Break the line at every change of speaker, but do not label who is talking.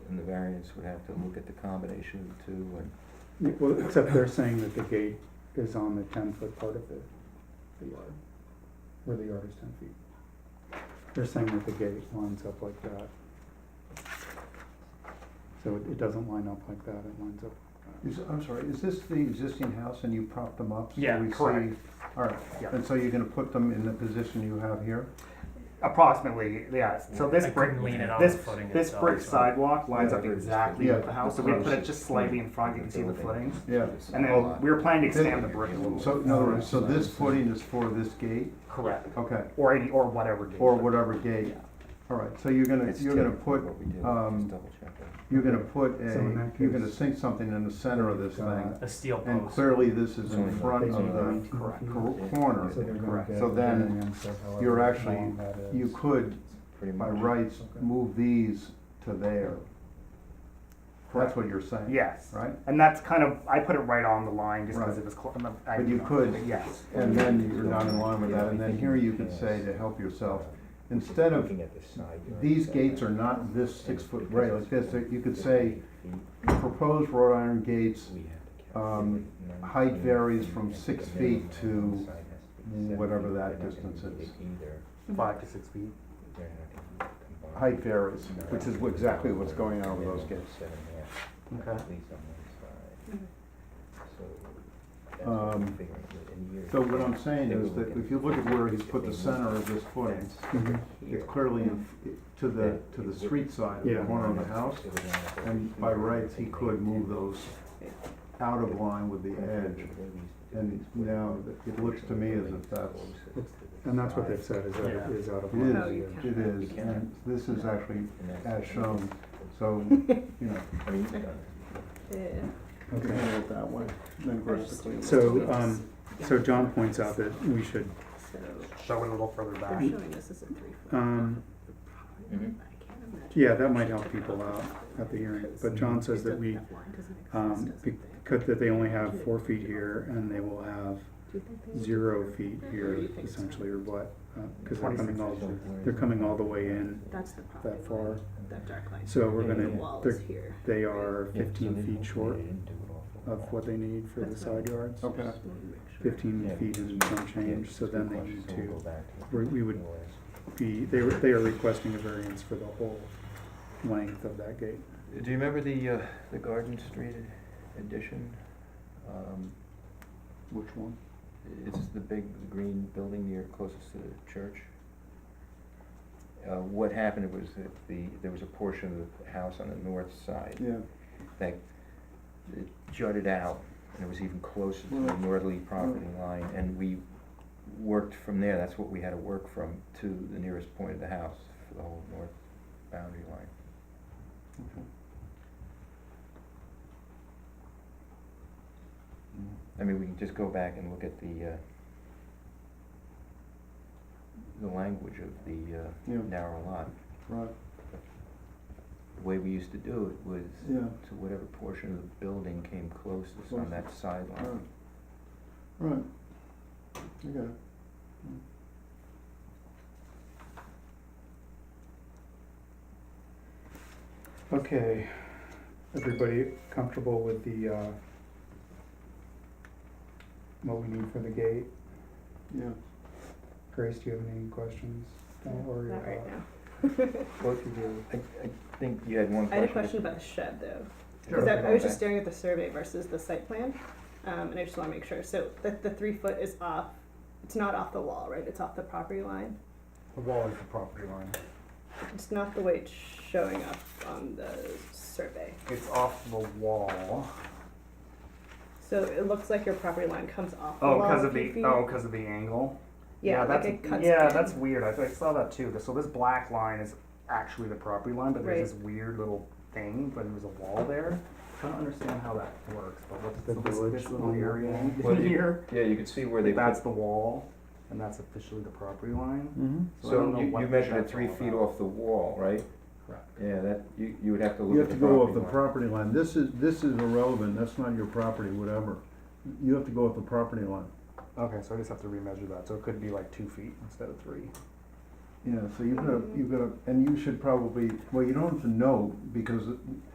variance would have to look at the combination of the two and,
Well, except they're saying that the gate is on the ten foot part of the, the yard, where the yard is ten feet. They're saying that the gate lines up like that. So it, it doesn't line up like that, it lines up.
Is, I'm sorry, is this the existing house and you propped them up? so
Yeah,
we see-
correct.
All right,
Yeah.
and so you're gonna put them in the position you have here?
Approximately, yeah. So this
I
brick,
couldn't lean it on
this,
the footing
this
itself,
brick
so-
sidewalk lines up
Whatever it is.
exactly
Yeah.
with the house, so we put it just slightly in front. You can see the footings.
Yeah.
And then we were planning to expand the brick a little.
So, in other words, so this footing is for this gate,
Correct.
okay,
Or any, or whatever. gate.
or whatever gate? All right, so you're gonna,
It's
you're gonna
typical
put,
what we do, just
um,
double check that.
you're gonna put
So in
a,
that
you're gonna
case,
sink something in the center of this thing.
got-
A steel
And
post.
clearly, this is
Sorry.
in front of the
Nineteen
correct.
feet.
cor- corner.
So they're gonna
Correct.
get
So then
everything in, so however
you're actually-
long that is.
You could,
Pretty
by
much.
rights, move these to there. That's what you're saying?
Yes.
Right?
And that's kind of, I put it right on the line just because
Right.
it was close.
But you could-
Yes.
And then you're not in line with that, and then here you could say to help yourself, instead of,
Looking at the side yard
these
setback.
gates are not this six-foot rail, like this, that you could say,
We
proposed wrought iron gates,
had to
um,
calculate
height
19,
varies
and
from
then
six
the minimum
feet to
on the side has to be seven
whatever
feet.
that
They're not gonna
distance
meet
is.
it Either,
Five to six feet.
they're not gonna meet it combined.
height varies, which is exactly what's going on with those gates.
Seven and a half.
Okay.
at least on one side. So
Mm-hmm.
that's what
Um,
I'm figuring, but in years
So what I'm
past,
saying
they were
is that
looking
if you look at where he's
if
put
they
the
moved
center of this footing,
that's
Mhm.
here,
it's clearly in, to the, to the street side, the
Yeah.
corner of the
then
house,
they would want it over
and by
here,
rights, he
and they
could
would
move
do-
those out of line with the edge. And now, it looks to me as if that's,
And that's what they've said, is that it
Yeah.
is out of.
It
line.
is. it is, and this is actually as shown, so, you know,
I mean, you know,
you can
Okay.
handle it that way. Then, of course, the clean-
So, um, so John points out that we should,
So,
Show it a little further
they're
back.
showing us as a three foot.
um,
Mhm.
I can't imagine.
yeah, that might help people out at the hearing, but John says that we, um, because that they only have four feet here and they will have zero feet here essentially or what? Because they're coming all, they're coming all the way in
That's the problem.
that far.
That dark line.
So we're
The
gonna,
wall is
they're,
here.
they
Yeah,
are
so
fifteen
they
feet
don't-
short
they didn't do it all for
of what they need for the side yards.
Okay.
Just wanna make sure.
Fifteen
Yeah,
feet and some change, so then they need
So we'll
to
go back to-
we- we would- be, they were, they are requesting a variance for the whole length of that gate.
Do you remember the, uh, the Garden Street addition? Um,
Which one?
It's the big green building near closest to the church. Uh, what happened was that the, there was a portion of the house on the north side
Yeah,
that it jutted out and it was even closer to the
Well,
northerly property line and we worked from there, that's what we had to work from to the nearest point of the house, for the whole north boundary line.
okay.
I mean, we can just go back and look at the, uh, the language of the,
Yeah.
uh, narrow lot.
Right,
The way we used to do it was
yeah.
to whatever portion of the building came closest on
Closest.
that sideline.
Right. You got it.
Okay, everybody comfortable with the, uh, what we need for the gate?
Yeah.
Grace, do you have any questions? Don't worry
Not right
about-
now.
Both of you, I, I think you had one
I
question.
had a question about the shed though.
Sure.
Cause I, I was just staring at the survey versus the site plan, um, and I just wanna make sure, so the, the three foot is off, it's not off the wall, right, it's off the property line?
The wall is the property line.
It's not the way it's showing up on the survey,
It's off the wall.
so it looks like your property line comes off the
Oh,
wall
because
a
of
few
the
feet.
oh, because of the angle.
Yeah, like
that's
it cuts
yeah,
in.
that's weird. I, I saw that too. So this black line is actually the property line, but there's
Right.
this weird little thing, but there was a wall there. I don't understand how that works, but what's
The
so this,
village
this little
on the
area
wall?
in
Well, you-
here?
Yeah, you could see where they put
That's the wall, and that's officially the property line.
Mm-hmm.
So, I don't
So
know
you,
what
you measured it
that's
three
all
feet
about.
off the wall, right?
Correct.
Yeah, that, you, you would have to
You
look
have
at
to
the
go off
property
the
line.
property line, this is, this is irrelevant, that's not your property, whatever. You have to go off the property line.
Okay, so I just have to remeasure that. So it could be like two feet instead of three.
Yeah, so you've got, you've got, and you should probably, well, you don't have to know, because